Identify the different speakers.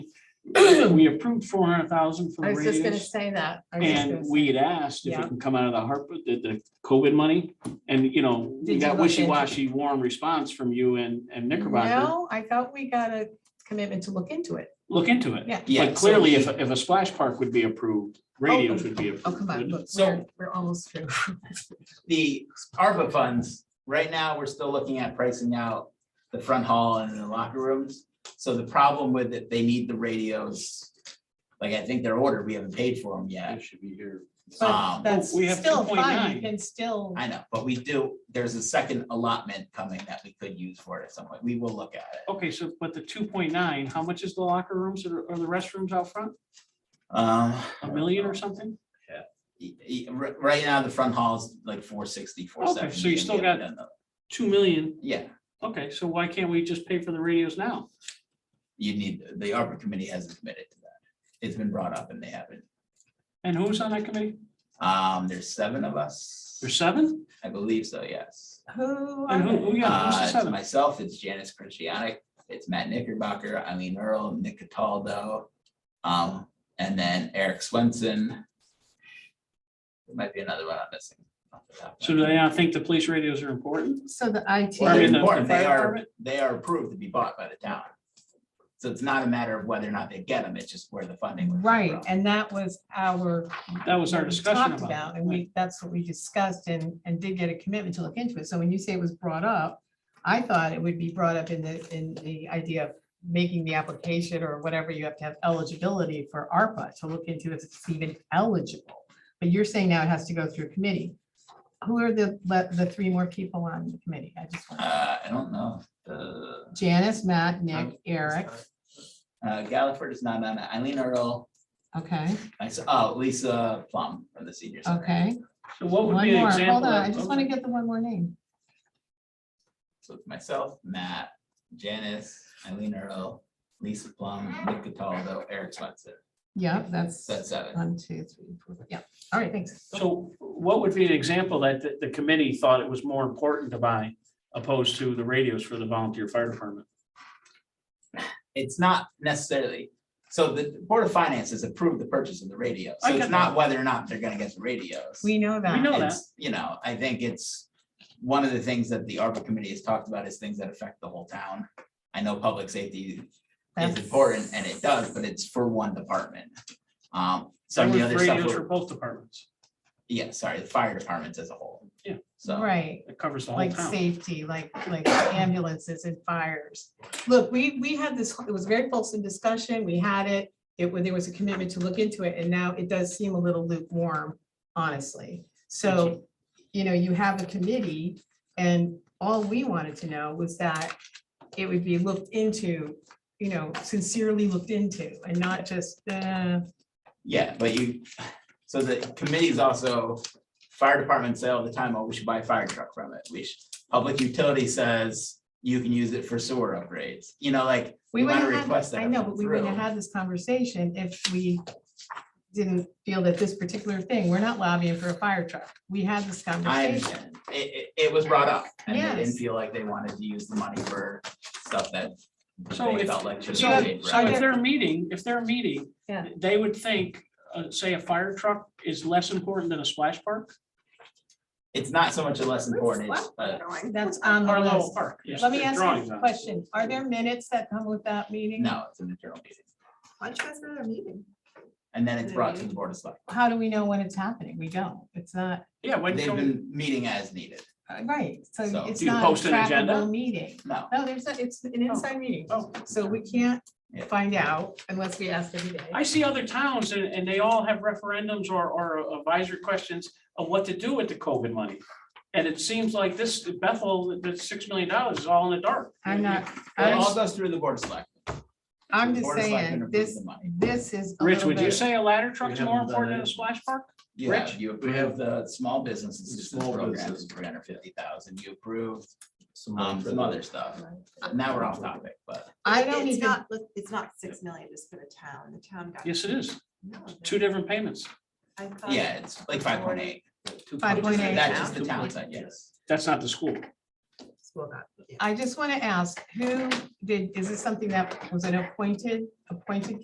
Speaker 1: we approved four hundred thousand for
Speaker 2: I
Speaker 1: the
Speaker 2: was just gonna
Speaker 1: radios.
Speaker 2: say that. I was just gonna
Speaker 1: And
Speaker 2: say-
Speaker 1: we had asked if
Speaker 2: Yeah.
Speaker 1: it can come out of the HARPA, the, the COVID money. And, you know,
Speaker 2: Did
Speaker 1: we
Speaker 2: you
Speaker 1: got
Speaker 2: look into-
Speaker 1: wishy-washy warm response from you and, and Knickerbocker.
Speaker 2: No, I thought we got a commitment to look into it.
Speaker 1: Look into it.
Speaker 2: Yeah.
Speaker 3: Yeah,
Speaker 1: But
Speaker 3: so
Speaker 1: clearly,
Speaker 3: he-
Speaker 1: if, if a splash park would be approved, radios would be approved.
Speaker 2: Oh, come on,
Speaker 1: wouldn't it?
Speaker 2: look,
Speaker 3: So-
Speaker 2: we're, we're almost through.
Speaker 3: The ARPA funds, right now, we're still looking at pricing out the front hall and the locker rooms. So the problem with it, they need the radios. Like, I think they're ordered, we haven't paid for them yet.
Speaker 1: That should be here.
Speaker 2: But
Speaker 3: Um,
Speaker 2: that's
Speaker 1: we have
Speaker 2: still fine,
Speaker 1: 2.9.
Speaker 2: you can still,
Speaker 3: I know, but we do, there's a second allotment coming that we could use for it at some point. We will look at it.
Speaker 1: Okay, so, but the two point nine, how much is the locker rooms or, or the restrooms out front?
Speaker 3: Um,
Speaker 1: A million or something?
Speaker 3: y- y- r- Right now, the front hall's like four sixty, four seventy.
Speaker 1: Okay, so you still got- Two million.
Speaker 3: Yeah,
Speaker 1: Okay, so why can't we just pay for the radios now?
Speaker 3: you need, the ARPA committee hasn't committed to that. It's been brought up and they haven't.
Speaker 1: And who's on that committee?
Speaker 3: Um, there's seven of us.
Speaker 1: There's seven?
Speaker 3: I believe so, yes.
Speaker 2: who?
Speaker 1: And who, who,
Speaker 2: are
Speaker 1: yeah, who's
Speaker 3: Uh,
Speaker 1: the
Speaker 3: it's
Speaker 1: seven?
Speaker 3: Myself, it's Janice Christianic, it's Matt Knickerbocker, Eileen Earl, Nick Cataldo. Um, and then Eric Swenson. There might be another one I'm missing. off the top of my
Speaker 1: So do they not think the police radios are important?
Speaker 2: they? So the
Speaker 3: Well,
Speaker 1: Department
Speaker 2: IT,
Speaker 3: they're
Speaker 1: of-
Speaker 3: important. They
Speaker 1: fire
Speaker 3: are,
Speaker 1: department?
Speaker 3: they are approved to be bought by the town. So it's not a matter of whether or not they get them, it's just where the funding. would come
Speaker 2: right,
Speaker 3: from.
Speaker 2: and that was our.
Speaker 1: That was our
Speaker 2: what we
Speaker 1: discussion
Speaker 2: talked
Speaker 1: about. it.
Speaker 2: And we, that's what we discussed and, and did get a commitment to look into it. So when you say it was brought up, I thought it would be brought up in the, in the idea of making the application or whatever, you have to have eligibility for ARPA to look into if it's even eligible. But you're saying now it has to go through committee. Who are the, le- the three more people on the committee? I just want,
Speaker 3: Uh, I don't know, the.
Speaker 2: Janice, Matt, Nick, Eric,
Speaker 3: Uh, Galliford is not on it, Eileen Earl,
Speaker 2: okay,
Speaker 3: I saw, oh, Lisa Plum from the senior center.
Speaker 2: okay.
Speaker 1: So what would
Speaker 2: One
Speaker 1: be an
Speaker 2: more, hold on,
Speaker 1: example?
Speaker 2: I
Speaker 1: of-
Speaker 2: just want to get the one more name.
Speaker 3: So it's myself, Matt, Janice, Eileen Earl, Lisa Plum, Nick Cataldo, Eric Swenson,
Speaker 2: Yep, that's.
Speaker 3: that's seven.
Speaker 2: One, two, three, four, five. yeah, all right, thanks.
Speaker 1: So what would be an example that the, the committee thought it was more important to buy opposed to the radios for the volunteer fire department?
Speaker 3: It's not necessarily, so the Board of Finance has approved the purchase of the radio,
Speaker 1: I
Speaker 3: so it's
Speaker 1: get
Speaker 3: not whether or not they're gonna get the radios.
Speaker 2: We know that.
Speaker 1: We know that.
Speaker 3: It's, you know, I think it's, one of the things that the ARPA committee has talked about is things that affect the whole town. I know public safety is
Speaker 2: That's-
Speaker 3: important and it does, but it's for one department.
Speaker 1: There
Speaker 3: Um, some of the
Speaker 1: was
Speaker 3: other stuff,
Speaker 1: radios for
Speaker 3: were-
Speaker 1: both departments.
Speaker 3: yeah, sorry, the fire departments as a whole.
Speaker 1: Yeah.
Speaker 3: So.
Speaker 2: Right,
Speaker 1: It covers the whole
Speaker 2: like
Speaker 1: town.
Speaker 2: safety, like, like ambulances and fires. Look, we, we had this, it was very fulsome discussion, we had it, it, wa- there was a commitment to look into it, and now it does seem a little lukewarm, honestly. So, you know, you have a committee, and all we wanted to know was that it would be looked into, you know, sincerely looked into, and not just, uh,
Speaker 3: Yeah, but you, so the committee's also, fire department say all the time, oh, we should buy a fire truck from it, we should. Public utility says you can use it for sewer upgrades, you know, like,
Speaker 2: We
Speaker 3: we
Speaker 2: would
Speaker 3: might
Speaker 2: have,
Speaker 3: request
Speaker 2: had-
Speaker 3: that.
Speaker 2: I know, but we wouldn't have
Speaker 3: through.
Speaker 2: had this conversation if we didn't feel that this particular thing, we're not lobbying for a fire truck. We had this
Speaker 3: I
Speaker 2: conversation.
Speaker 3: understand, it, it, it was brought up, and they didn't
Speaker 2: Yes.
Speaker 3: feel like they wanted to use the money for stuff that
Speaker 1: So
Speaker 3: they
Speaker 1: if-
Speaker 3: felt like should
Speaker 1: So if-
Speaker 3: have been paid for.
Speaker 1: so if they're meeting, if they're meeting,
Speaker 2: Yeah.
Speaker 1: they would think, uh, say a fire truck is less important than a splash park?
Speaker 3: It's not so much a less important, it's, uh,
Speaker 2: That's on the
Speaker 1: Or a little
Speaker 2: list.
Speaker 1: park? yes,
Speaker 2: Let me
Speaker 1: they're
Speaker 2: ask
Speaker 1: drawings
Speaker 2: you
Speaker 1: on
Speaker 2: a
Speaker 1: it.
Speaker 2: question. Are there minutes that come with that meeting?
Speaker 3: no, it's an internal meeting,
Speaker 2: Why don't you guys have a meeting?
Speaker 3: and then it's brought to the board of select.
Speaker 2: How do we know when it's happening? We don't. It's not, uh,
Speaker 1: Yeah, when,
Speaker 3: They've
Speaker 1: can-
Speaker 3: been meeting as needed,
Speaker 2: right, so
Speaker 3: So,
Speaker 2: it's
Speaker 1: do you
Speaker 2: not a
Speaker 1: post an agenda?
Speaker 2: trackable meeting.
Speaker 3: no,
Speaker 2: No, there's, not. it's an inside meeting,
Speaker 1: Oh.
Speaker 2: so we can't
Speaker 3: Yeah.
Speaker 2: find out unless we ask every day.
Speaker 1: I see other towns and, and they all have referendums or, or advisory questions of what to do with the COVID money. And it seems like this Bethel, the six million dollars is all in the dark.
Speaker 2: I'm not,
Speaker 3: it
Speaker 2: I'm
Speaker 3: all goes through the board of select.
Speaker 2: I'm
Speaker 3: The
Speaker 2: just
Speaker 3: Board of Selectmen
Speaker 2: saying,
Speaker 3: approves
Speaker 2: this,
Speaker 3: the money.
Speaker 2: this is. a
Speaker 1: Rich,
Speaker 2: little
Speaker 1: would you
Speaker 2: bit-
Speaker 1: say a ladder truck's
Speaker 4: We
Speaker 1: more
Speaker 4: haven't done
Speaker 1: important than a
Speaker 4: it.
Speaker 1: splash park?
Speaker 3: You
Speaker 1: Rich?
Speaker 3: have, you approved the small business assistance
Speaker 4: Small
Speaker 3: program,
Speaker 4: business.
Speaker 3: three hundred fifty thousand, you approved
Speaker 4: money
Speaker 3: um
Speaker 4: for
Speaker 3: some
Speaker 4: that.
Speaker 3: other stuff. Now we're off topic, but
Speaker 2: I don't
Speaker 5: It's
Speaker 2: even,
Speaker 5: not, it's not six million just for the town, the town got.
Speaker 1: Yes, it is.
Speaker 5: No, the-
Speaker 1: Two different payments.
Speaker 5: I thought-
Speaker 3: yeah, it's like five point eight.
Speaker 2: 5.8.
Speaker 3: That's just the town side, yes.
Speaker 1: That's not the school.
Speaker 2: I just want to ask, who did, is this something that was an appointed, appointed